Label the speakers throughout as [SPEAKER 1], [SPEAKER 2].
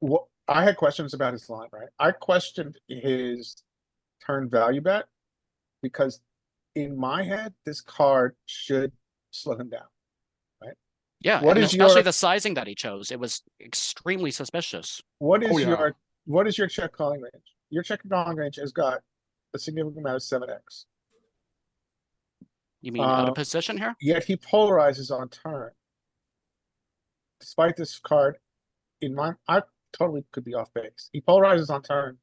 [SPEAKER 1] What, I had questions about his line, right? I questioned his turn value bet. Because in my head, this card should slow him down.
[SPEAKER 2] Yeah,
[SPEAKER 1] What
[SPEAKER 2] and
[SPEAKER 1] is
[SPEAKER 2] especially
[SPEAKER 1] your-
[SPEAKER 2] the sizing that he chose. It was extremely suspicious.
[SPEAKER 1] What
[SPEAKER 3] Oh,
[SPEAKER 1] is
[SPEAKER 3] yeah.
[SPEAKER 1] your, what is your check calling range? Your check calling range has got a significant amount of seven X.
[SPEAKER 2] You mean out
[SPEAKER 1] Uh,
[SPEAKER 2] of position here?
[SPEAKER 1] Yet he polarizes on turn. Despite this card, in my, I totally could be off base. He polarizes on turn.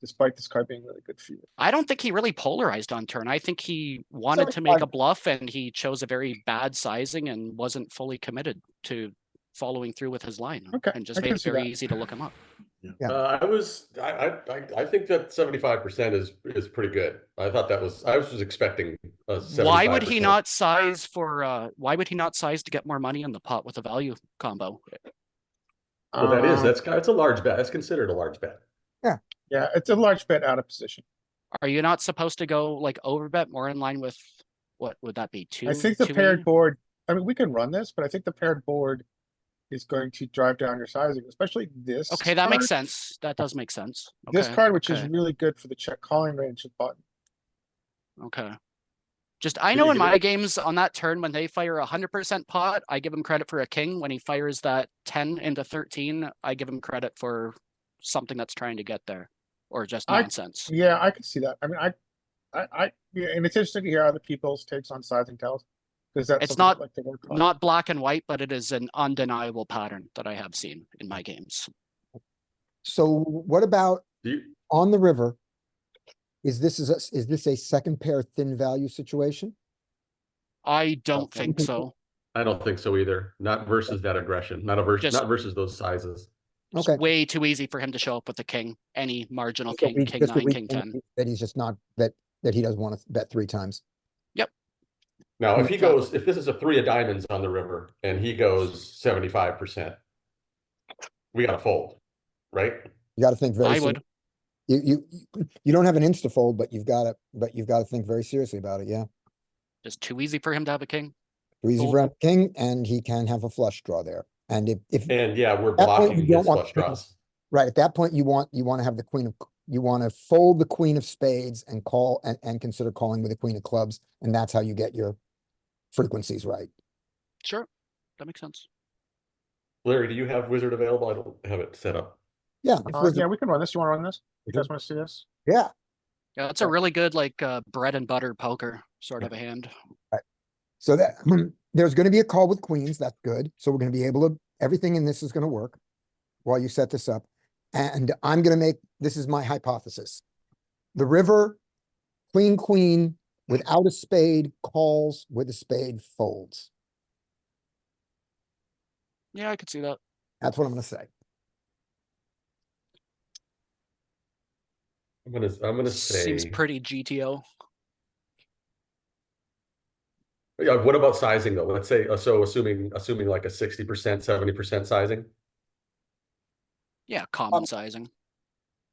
[SPEAKER 1] Despite this card being really good for you.
[SPEAKER 2] I don't think he really polarized on turn. I think he wanted
[SPEAKER 1] it's
[SPEAKER 2] to make
[SPEAKER 1] fine.
[SPEAKER 2] a bluff and he chose a very bad sizing and wasn't fully committed to following through with his line.
[SPEAKER 1] Okay,
[SPEAKER 2] And
[SPEAKER 1] I
[SPEAKER 2] just made
[SPEAKER 1] can
[SPEAKER 2] it
[SPEAKER 1] see
[SPEAKER 2] very
[SPEAKER 1] that.
[SPEAKER 2] easy to look him up.
[SPEAKER 4] Yeah.
[SPEAKER 3] Uh, I was, I, I, I- I think that seventy-five percent is, is pretty good. I thought that was, I was just expecting a seventy-five.
[SPEAKER 2] Why would he not size for, uh, why would he not size to get more money in the pot with a value combo?
[SPEAKER 3] Well, that is,
[SPEAKER 2] Uh.
[SPEAKER 1] Um,
[SPEAKER 3] that's, ki- it's a large bet. That's considered a large bet.
[SPEAKER 1] Yeah, it's a large bet out of position.
[SPEAKER 2] Are you not supposed to go like over bet more in line with, what would that be? Two?
[SPEAKER 1] I think the
[SPEAKER 2] 2E?
[SPEAKER 1] paired board, I mean, we can run this, but I think the paired board is going to drive down your sizing, especially this.
[SPEAKER 2] Okay, that makes
[SPEAKER 1] card-
[SPEAKER 2] sense. That does make sense.
[SPEAKER 1] This
[SPEAKER 2] Okay,
[SPEAKER 1] card, which is
[SPEAKER 2] okay.
[SPEAKER 1] really good for the check calling range of button.
[SPEAKER 2] Okay. Just, I
[SPEAKER 3] Did
[SPEAKER 2] know
[SPEAKER 3] you
[SPEAKER 2] in
[SPEAKER 3] get it?
[SPEAKER 2] my games on that turn, when they fire a hundred percent pot, I give him credit for a king. When he fires that ten into thirteen, I give him credit for something that's trying to get there. Or just
[SPEAKER 1] I-
[SPEAKER 2] nonsense.
[SPEAKER 1] Yeah, I could see that. I mean, I, I, I, yeah, and it's interesting to hear other people's takes on sizing tells. Cause that's.
[SPEAKER 2] It's
[SPEAKER 1] something I'd
[SPEAKER 2] not-
[SPEAKER 1] like to work on.
[SPEAKER 2] Not black and white, but it is an undeniable pattern that I have seen in my games.
[SPEAKER 4] So what about
[SPEAKER 3] Do you,
[SPEAKER 4] on the river? Is this is, a- is this a second pair thin value situation?
[SPEAKER 2] I don't
[SPEAKER 4] Okay.
[SPEAKER 2] think so.
[SPEAKER 3] I don't think so either. Not versus that aggression, not a versus,
[SPEAKER 2] Just-
[SPEAKER 3] not versus those sizes.
[SPEAKER 2] It's
[SPEAKER 4] Okay.
[SPEAKER 2] way too easy for him to show up with the king, any marginal
[SPEAKER 4] Just a
[SPEAKER 2] king,
[SPEAKER 4] weak-
[SPEAKER 2] king
[SPEAKER 4] just a
[SPEAKER 2] nine,
[SPEAKER 4] weak
[SPEAKER 2] king
[SPEAKER 4] thing
[SPEAKER 2] ten.
[SPEAKER 4] That he's just not, that, that he doesn't want to bet three times.
[SPEAKER 3] Now, if he
[SPEAKER 2] Exactly.
[SPEAKER 3] goes, if this is a three of diamonds on the river and he goes seventy-five percent, we gotta fold, right?
[SPEAKER 4] You gotta think very.
[SPEAKER 2] I
[SPEAKER 4] ser-
[SPEAKER 2] would.
[SPEAKER 4] You, you, you- you don't have an insta fold, but you've gotta, but you've gotta think very seriously about it, yeah.
[SPEAKER 2] Just too easy for him to have a king.
[SPEAKER 4] Too easy for
[SPEAKER 2] Fold.
[SPEAKER 4] a king and he can have a flush draw there. And if, if,
[SPEAKER 3] And yeah, we're
[SPEAKER 4] That point,
[SPEAKER 3] blocking
[SPEAKER 4] you don't
[SPEAKER 3] his
[SPEAKER 4] want
[SPEAKER 3] flush
[SPEAKER 4] to-
[SPEAKER 3] draws.
[SPEAKER 4] right, at that point, you want, you wanna have the queen of, you wanna fold the queen of spades and call, and, and consider calling with the queen of clubs. And that's how you get your frequencies right.
[SPEAKER 2] Sure, that makes sense.
[SPEAKER 3] Larry, do you have wizard available? I don't have it set up.
[SPEAKER 4] Yeah. if
[SPEAKER 1] Uh,
[SPEAKER 4] we're the-
[SPEAKER 1] yeah, we can run this. You wanna run this? You
[SPEAKER 4] Mhm.
[SPEAKER 1] guys wanna see this?
[SPEAKER 4] Yeah.
[SPEAKER 2] Yeah, it's a
[SPEAKER 4] Okay.
[SPEAKER 2] really good like uh, bread and butter poker sort of a hand.
[SPEAKER 4] So that, there's gonna be a call with queens, that's good, so we're gonna be able to, everything in this is gonna work while you set this up. And I'm gonna make, this is my hypothesis. The river, queen, queen, without a spade calls, with a spade folds.
[SPEAKER 2] Yeah, I could see that.
[SPEAKER 4] That's what I'm gonna say.
[SPEAKER 3] I'm gonna, I'm gonna say.
[SPEAKER 2] Seems pretty GTO.
[SPEAKER 3] Yeah, what about sizing though? Let's say, uh, so assuming, assuming like a sixty percent, seventy percent sizing,
[SPEAKER 2] Yeah, common sizing.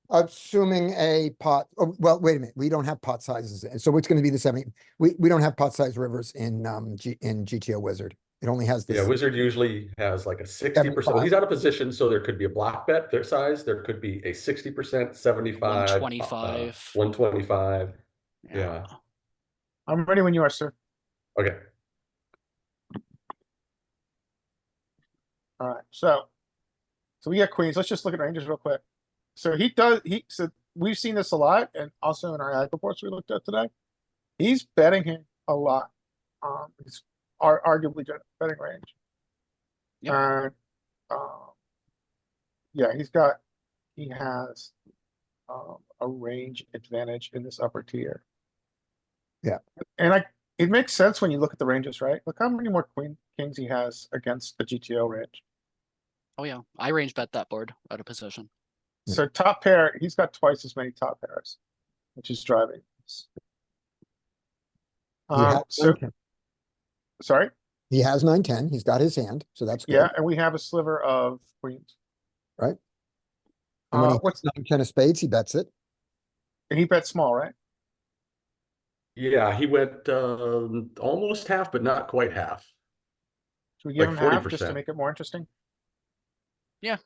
[SPEAKER 4] Assuming a pot, oh, well, wait a minute, we don't have pot sizes, and so it's gonna be the seventy, we, we don't have pot size rivers in, um, G, in GTO Wizard. It only has
[SPEAKER 3] yeah,
[SPEAKER 4] this,
[SPEAKER 3] wizard usually has like a sixty percent, well, he's out of position, so there could be a block bet, their size, there could be a sixty percent, seventy-five.
[SPEAKER 2] 125.
[SPEAKER 3] One twenty-five, yeah,
[SPEAKER 1] I'm ready when you are, sir.
[SPEAKER 3] okay,
[SPEAKER 1] Alright, so. So we got queens. Let's just look at ranges real quick. So he does, he, so we've seen this a lot and also in our ad reports we looked at today. He's betting here a lot. Um, he's ar- arguably good at betting range.
[SPEAKER 2] Yep.
[SPEAKER 1] And, um. Yeah, he's got, he has. Um, a range advantage in this upper tier.
[SPEAKER 4] Yeah.
[SPEAKER 1] And I, it makes sense when you look at the ranges, right? Look how many more queen, kings he has against the GTO range.
[SPEAKER 2] Oh yeah, I range bet that board out of position.
[SPEAKER 4] Yeah.
[SPEAKER 1] So top pair, he's got twice as many top pairs, which is driving. this.
[SPEAKER 4] he has
[SPEAKER 1] Um, so,
[SPEAKER 4] 9-10.
[SPEAKER 1] sorry,
[SPEAKER 4] he has nine, ten, he's got his hand, so that's good.
[SPEAKER 1] yeah, and we have a sliver of queens.
[SPEAKER 4] Right. And when
[SPEAKER 1] Uh,
[SPEAKER 4] he
[SPEAKER 1] what's,
[SPEAKER 4] nine, ten of spades, he bets it.
[SPEAKER 1] and he bet small, right?
[SPEAKER 3] yeah, he went, um, almost half, but not quite half.
[SPEAKER 1] Should we give him
[SPEAKER 3] Like
[SPEAKER 1] half just to
[SPEAKER 3] 40%.
[SPEAKER 1] make it more interesting?
[SPEAKER 2] Yeah,